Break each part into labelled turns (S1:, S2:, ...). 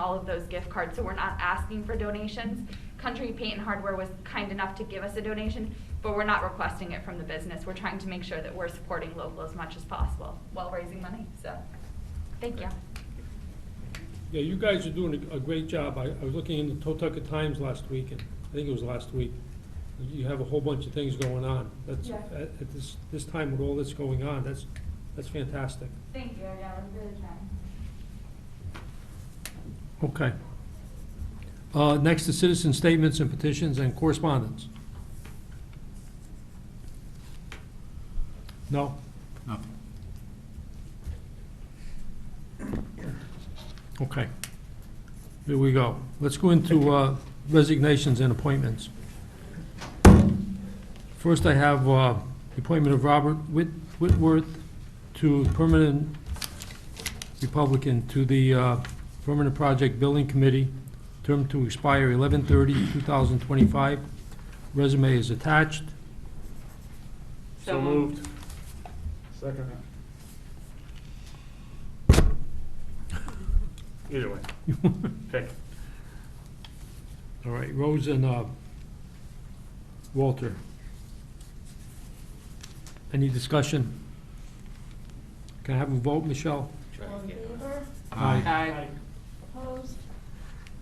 S1: all of those gift cards, so we're not asking for donations. Country Paint and Hardware was kind enough to give us a donation, but we're not requesting it from the business. We're trying to make sure that we're supporting local as much as possible while raising money, so, thank you.
S2: Yeah, you guys are doing a a great job. I, I was looking in the Totucket Times last week, and I think it was last week. You have a whole bunch of things going on. That's,
S1: Yeah.
S2: at, at this, this time with all that's going on, that's, that's fantastic.
S1: Thank you, yeah, we're really trying.
S2: Okay. Uh, next is citizen statements and petitions and correspondence. No?
S3: Nothing.
S2: Okay. Here we go. Let's go into uh, resignations and appointments. First, I have uh, the appointment of Robert Whit- Whitworth to permanent Republican to the uh, Permanent Project Building Committee, term to expire 11/30/2025. Resume is attached.
S4: So moved.
S3: Second.
S4: Either way. Pick.
S2: All right, Rose and uh, Walter. Any discussion? Can I have a vote, Michelle?
S5: All in favor?
S2: Aye.
S5: Aye. Opposed?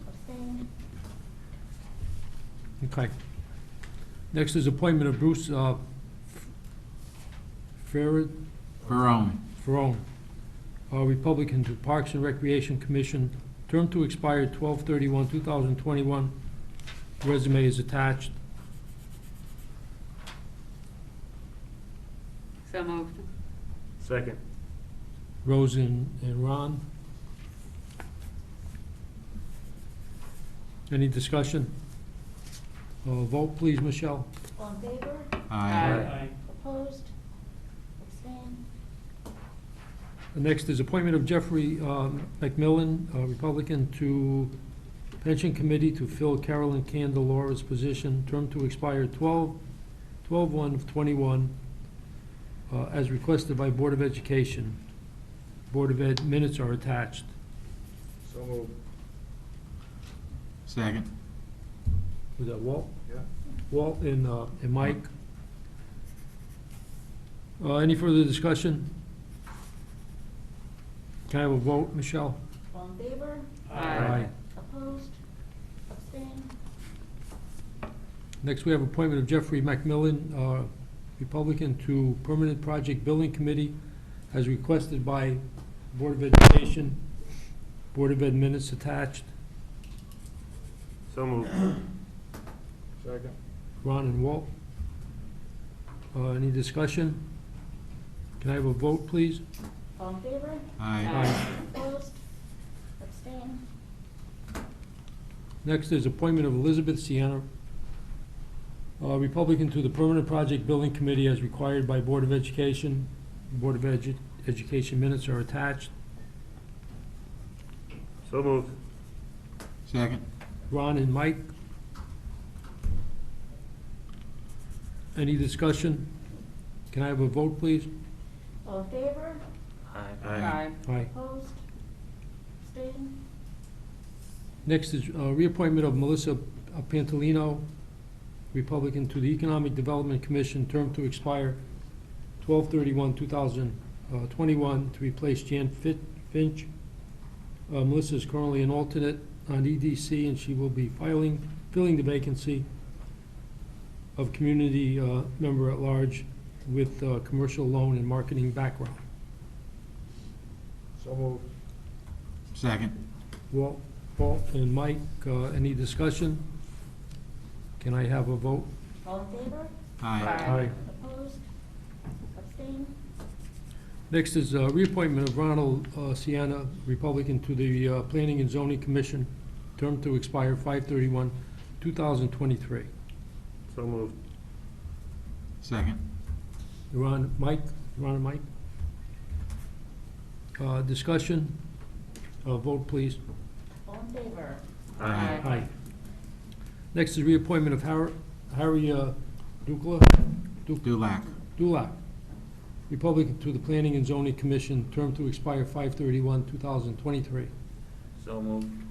S5: Abstained?
S2: Okay. Next is appointment of Bruce uh, Fer-
S3: Barone.
S2: Ferone, uh, Republican to Parks and Recreation Commission, term to expire 12/31/2021. Resume is attached.
S6: So moved.
S4: Second.
S2: Rose and and Ron. Any discussion? Uh, Vote, please, Michelle.
S5: All in favor?
S3: Aye.
S5: Opposed? Abstained?
S2: The Next is appointment of Jeffrey um, McMillan, uh, Republican, to Pension Committee to fill Carolyn Candelora's position, term to expire 12 12/1 of '21, as requested by Board of Education. Board of Ed minutes are attached.
S4: So moved.
S3: Second.
S2: Was that Walt?
S4: Yeah.
S2: Walt and, uh, and Mike. Uh, any further discussion? Can I have a vote, Michelle?
S5: All in favor?
S6: Aye.
S5: Opposed? Abstained?
S2: Next, we have appointment of Jeffrey McMillan, uh, Republican, to Permanent Project Building Committee, as requested by Board of Education. Board of Ed minutes attached.
S4: So moved. Second.
S2: Ron and Walt. Uh, any discussion? Can I have a vote, please?
S5: All in favor?
S3: Aye.
S5: Opposed? Abstained?
S2: Next is appointment of Elizabeth Sienna, uh, Republican to the Permanent Project Building Committee as required by Board of Education. Board of Edu- Education minutes are attached.
S4: So moved.
S3: Second.
S2: Ron and Mike. Any discussion? Can I have a vote, please?
S5: All in favor?
S6: Aye.
S2: Aye.
S5: Opposed? Abstained?
S2: Next is uh, reappointment of Melissa Pantolino, Republican, to the Economic Development Commission, term to expire 12/31/2021, uh, to replace Jan Fit- Finch. Uh, Melissa is currently an alternate on EDC, and she will be filing, filling the vacancy of community uh, member at large with uh, commercial loan and marketing background.
S4: So moved.
S3: Second.
S2: Walt, Walt and Mike, uh, any discussion? Can I have a vote?
S5: All in favor?
S3: Aye.
S6: Aye.
S5: Opposed? Abstained?
S2: Next is uh, reappointment of Ronald uh, Sienna, Republican, to the uh, Planning and Zoning Commission, term to expire 5/31/2023.
S4: So moved.
S3: Second.
S2: Ron, Mike, Ron and Mike? Uh, Discussion? Uh, Vote, please.
S5: All in favor?
S3: Aye.
S2: Aye. Next is reappointment of Har- Harry uh, Dukla,
S3: Dulac.
S2: Dulac, Republican, to the Planning and Zoning Commission, term to expire 5/31/2023.
S4: So moved.